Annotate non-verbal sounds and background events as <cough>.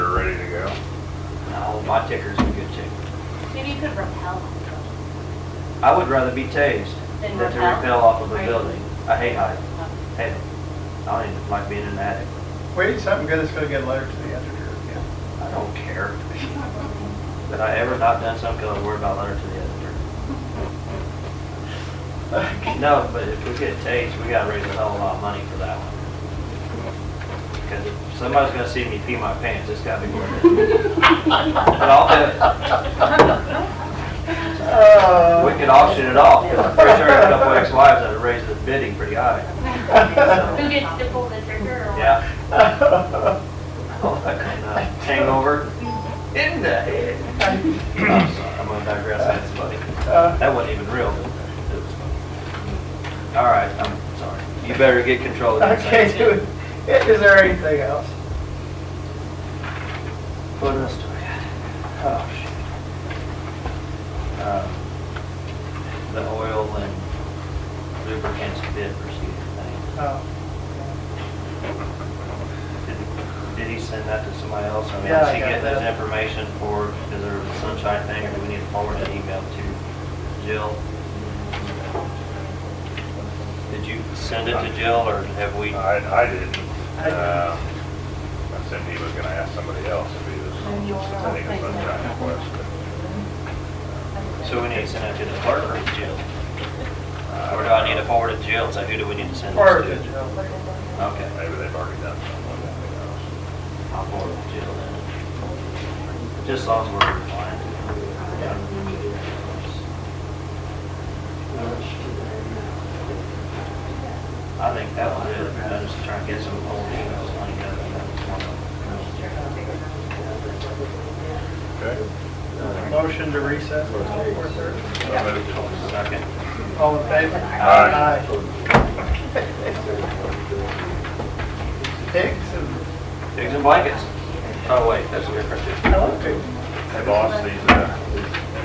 No, my ticker's a good ticker. Maybe you could repel them. I would rather be tased Than than to rappel? rappel off of a Right. building. I hate heights. Hate it. I don't even like being in an attic. Wait, something good is gonna get a letter to the editor. I don't care. That I ever not done something, I worry about letter to the editor. <laughs> No, but if we get tased, we gotta raise a hell of a lot of money for that one. Because if somebody's gonna see me pee my pants, it's gotta be worth it. But I'll do it. Oh. <laughs> We could auction it off. I'm Pretty sure there's a couple ex-wives that'd raise the bidding pretty high. Who gets to pull the trigger or? what? Yeah. <laughs> Oh, that kind of hangover in the head. I'm sorry, I'm gonna digress, that's funny. That wasn't even real, but it was funny. All right, I'm sorry. You better get control of your Okay, do thing. it. Is there anything else? What else do I got? Oh, shit. Um, The oil and lubricants bid procedure thing. Oh, Did- Did he send that to somebody else? I mean, Yeah, is I he got getting this that. information for, is there a sunshine thing, or do we need to forward an email to Jill? Did you send it to Jill, or have we? I, I didn't. I didn't. Uh, I said he was gonna ask somebody else if he was sending a sunshine request. So we need to send it to the clerk or to Jill? uh, Or do I need to forward it to Jill, so who do we need to send this Or, to? Okay, Maybe they've already done something, I I'll forward it to Jill then. Just as long as we're compliant. I think that was it, I'm just trying to get some old emails lined up. and that was one of them. don't know. motion to recess until four thirty. Okay. I moved. Second. All in favor? Aye. Aye. Pigs and, Pigs and blankets. Oh, wait, that's a different. I love pigs. Hey boss, these, uh,